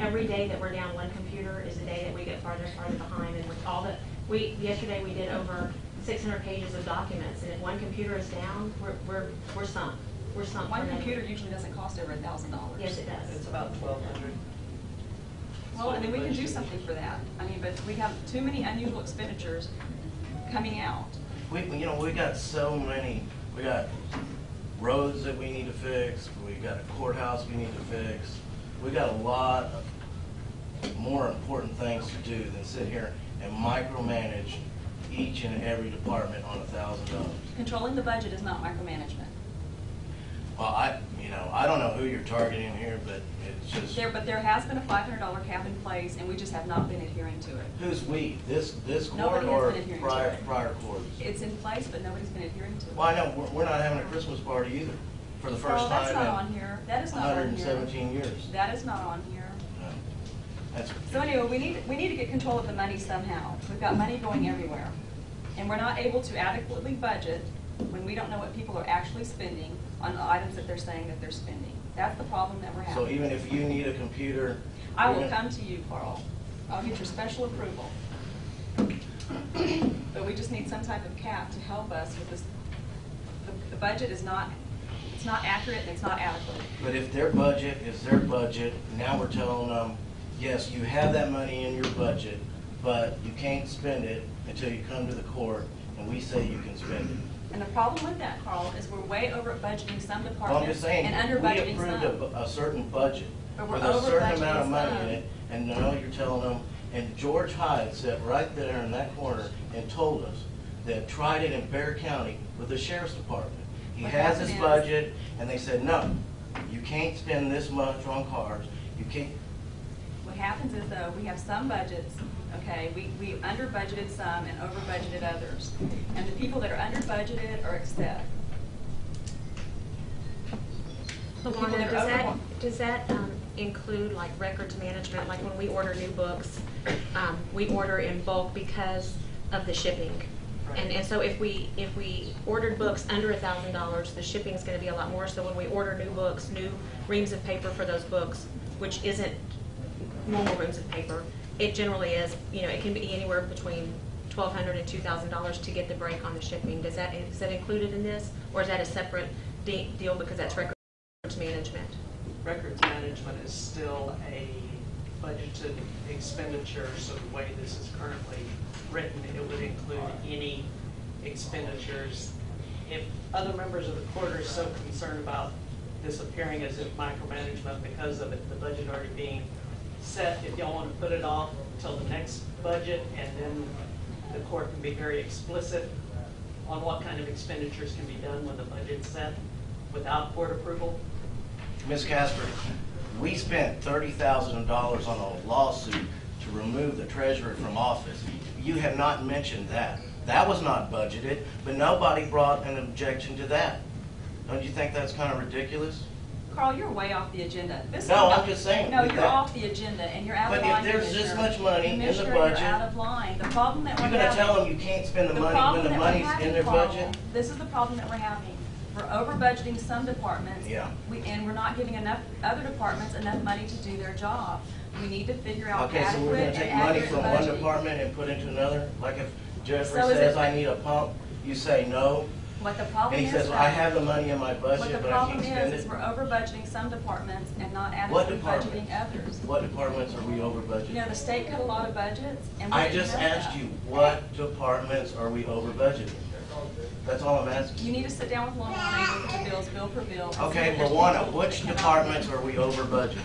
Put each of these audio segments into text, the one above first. every day that we're down one computer is a day that we get farther and farther behind, and with all the, we, yesterday we did over six hundred pages of documents, and if one computer is down, we're, we're, we're sunk, we're sunk. One forever. computer usually doesn't cost over a thousand dollars. Yes, it does. It's about twelve hundred. Well, and then we can do something for that. I mean, but we have too many unusual expenditures coming out. We, you know, we got so many, we got roads that we need to fix, we got a courthouse we need to fix. We got a lot of more important things to do than sit here and micromanage each and every department on a thousand dollars. Controlling the budget is not micromanagement. Well, I, you know, I don't know who you're targeting here, but it's just, There, but there has been a five hundred dollar cap in place, and we just have not been adhering to it. who's we? This, this court Nobody has or been adhering to prior, it. prior courts? It's in place, but nobody's been adhering to it. Well, I know, we're, we're not having a Christmas party either, for the first Oh, time that's in not on here. That is not on here. hundred and seventeen years. That is not on here. No. That's, So anyway, we need, we need to get control of the money somehow. We've got money going everywhere. And we're not able to adequately budget when we don't know what people are actually spending on the items that they're saying that they're spending. That's the problem that we're so having. even if you need a computer. I you're will gonna- come to you, Carl. I'll get your special approval. But we just need some type of cap to help us with this. The- The budget is not, it's not accurate and it's not adequate. But if their budget is their budget, now we're telling them, yes, you have that money in your budget, but you can't spend it until you come to the court and we say you can spend it. And the problem with that, Carl, is we're way over budgeting some Well, I'm departments just saying, and under we budgeting approved a, some. bu- a certain budget But with we're a over certain amount of budgeting money in some. it, and now you're telling them, and George Hyde sat right there in that corner and told us that tried it in Bear County with the sheriff's department. He What has his happened is- budget, and they said, no, you can't spend this much on cars, you can't, What happens is though, we have some budgets, okay, we, we under budgeted some and over budgeted others. And the people that are under budgeted are excess. Luana, that does are that, overwhelmed. does that um, include like records management, like when we order new books, um, we order in bulk because of the shipping? And, and so if we, if we ordered books under a thousand dollars, the shipping's gonna be a lot more, so when we order new books, new reams of paper for those books, which isn't normal reams of paper, it generally is, you know, it can be anywhere between twelve hundred and two thousand dollars to get the break on the shipping, does that, is that included in this? Or is that a separate de- deal because that's record records management. Records management is still a budgeted expenditure, so the way this is currently written, it would include any expenditures. If other members of the court are so concerned about this appearing as if micromanagement because of it, the budget already being set, if y'all want to put it off until the next budget, and then the court can be very explicit on what kind of expenditures can be done when the budget's set without court approval, Ms. Casper, we spent thirty thousand dollars on a lawsuit to remove the treasurer from office. You have not mentioned that. That was not budgeted, but nobody brought an objection to that. Don't you think that's kind of ridiculous? Carl, you're way off the agenda. This No, is- I'm just saying, No, with you're that- off the agenda and you're out of But if line, there's this Commissioner. much money in the Commissioner, budget, you're out of line. The problem that we're You're having. gonna tell them you can't spend the money problem when the that we're money's having, in their Carl, budget? This is the problem that we're having. We're over budgeting some departments. Yeah. we- And we're not giving enough, other departments enough money to do their job. We need to figure out Okay, so adequate we're gonna and take money accurate from one budgeting. department and put into another? Like if Jeffrey So is says, it- I need a pump, you say no, What the and problem he is. says, though, I have the money in my What the budget, but I problem can't spend is, is it. we're over budgeting some departments and not What adequately department? budgeting others. What departments are we over You budgeted? know, the state cut a lot of budgets and we I didn't just know asked that. you, what departments are we over budgeting? That's all I'm asking. You need to sit down with Luana and look at the bills, bill for bill. and see Okay, if there's Luana, people which that cannot departments pay. are we over budgeting?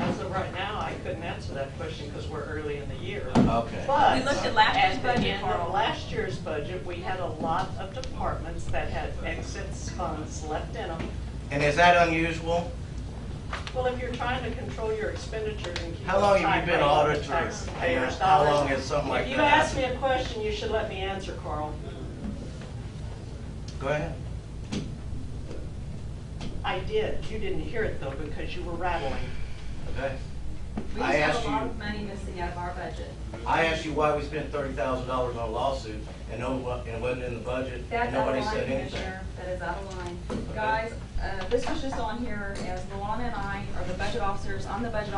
As of right now, I couldn't answer that question because we're early in the year. Okay. But We looked at last year's budget, the end of Carl. last year's budget, we had a lot of departments that had excess funds left in them. And is that unusual? Well, if you're trying to control your expenditures and keep. How long have you tight been rein on the auditor? taxpayers' How dollars, long has something like If you that ask me happened? a question, you should let me answer, Carl. Go ahead. I did. You didn't hear it though because you were rattling. Okay. We I just have asked a lot you- of money missing out of our budget. I asked you why we spent thirty thousand dollars on a lawsuit and no, and it wasn't in the budget and That's out nobody of line, said anything. Commissioner, that is out of line. Guys, uh, this was just on here as Luana and I are the budget officers, I'm the budget